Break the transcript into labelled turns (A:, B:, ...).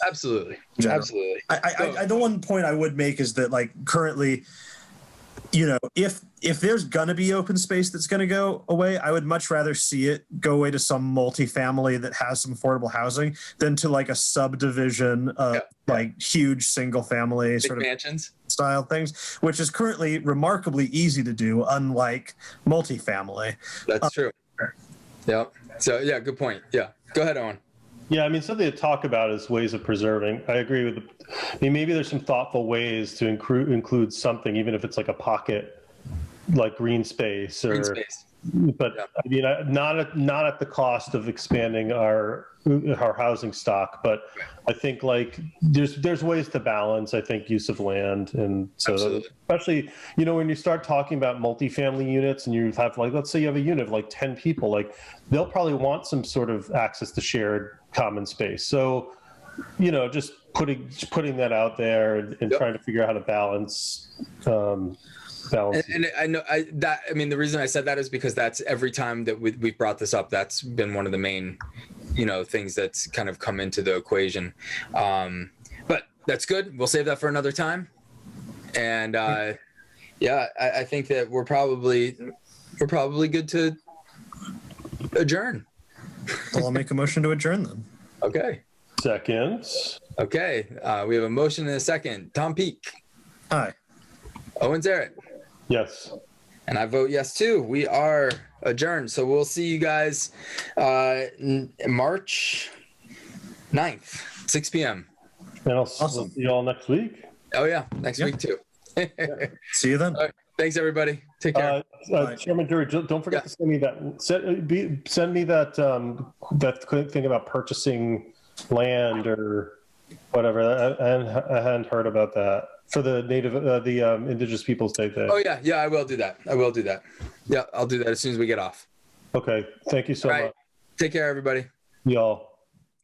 A: Absolutely.
B: General.
A: Absolutely.
B: I, I, I, the one point I would make is that like currently, you know, if if there's gonna be open space that's gonna go away, I would much rather see it go away to some multifamily that has some affordable housing than to like a subdivision of
A: Yeah.
B: like huge single family
A: Big
B: sort of
A: mansions.
B: style things, which is currently remarkably easy to do, unlike multifamily.
A: That's true. Yeah. So yeah, good point. Yeah. Go ahead, Owen.
C: Yeah, I mean, something to talk about is ways of preserving. I agree with. I mean, maybe there's some thoughtful ways to include include something, even if it's like a pocket, like green space or.
A: Green space.
C: But
A: Yeah.
C: I mean, I- not at not at the cost of expanding our our housing stock. But I think like there's there's ways to balance. I think use of land and so
A: Absolutely.
C: especially you know when you start talking about multifamily units and you have like let's say you have a unit of like ten people, like they'll probably want some sort of access to shared common space. So you know just putting just putting that out there and, and
A: Yep.
C: trying to figure out how to balance um, balance.
A: And, and I know I that I mean the reason I said that is because that's every time that we we brought this up, that's been one of the main, you know, things that's kind of come into the equation. Um, but that's good. We'll save that for another time. And uh, yeah, I, I think that we're probably we're probably good to adjourn.
B: Well, I'll make a motion to adjourn them.
A: Okay.
C: Seconds.
A: Okay. Uh, we have a motion and a second. Tom Peak,
B: Hi.
A: Owen Zarrett.
C: Yes.
A: And I vote yes too. We are adjourned. So we'll see you guys uh, n- March 9th, 6 p.m.
C: And I'll s-
B: Awesome.
C: see you all next week.
A: Oh, yeah. Next
B: Yeah.
A: week too.
B: See you then.
A: Thanks, everybody. Take care.
C: Uh, uh,
B: Bye.
C: Chairman Drury, ju- don't forget
A: Yeah.
C: to send me that. Send, be, send me that um, that quick thing about purchasing land or whatever. I, I, hadn't- I hadn't heard about that for the native uh, the um, Indigenous Peoples Day thing.
A: oh, yeah. Yeah, I will do that. I will do that. Yeah, I'll do that as soon as we get off.
C: Okay, thank you so
A: All right.
C: much,
A: Take care, everybody.
C: y'all.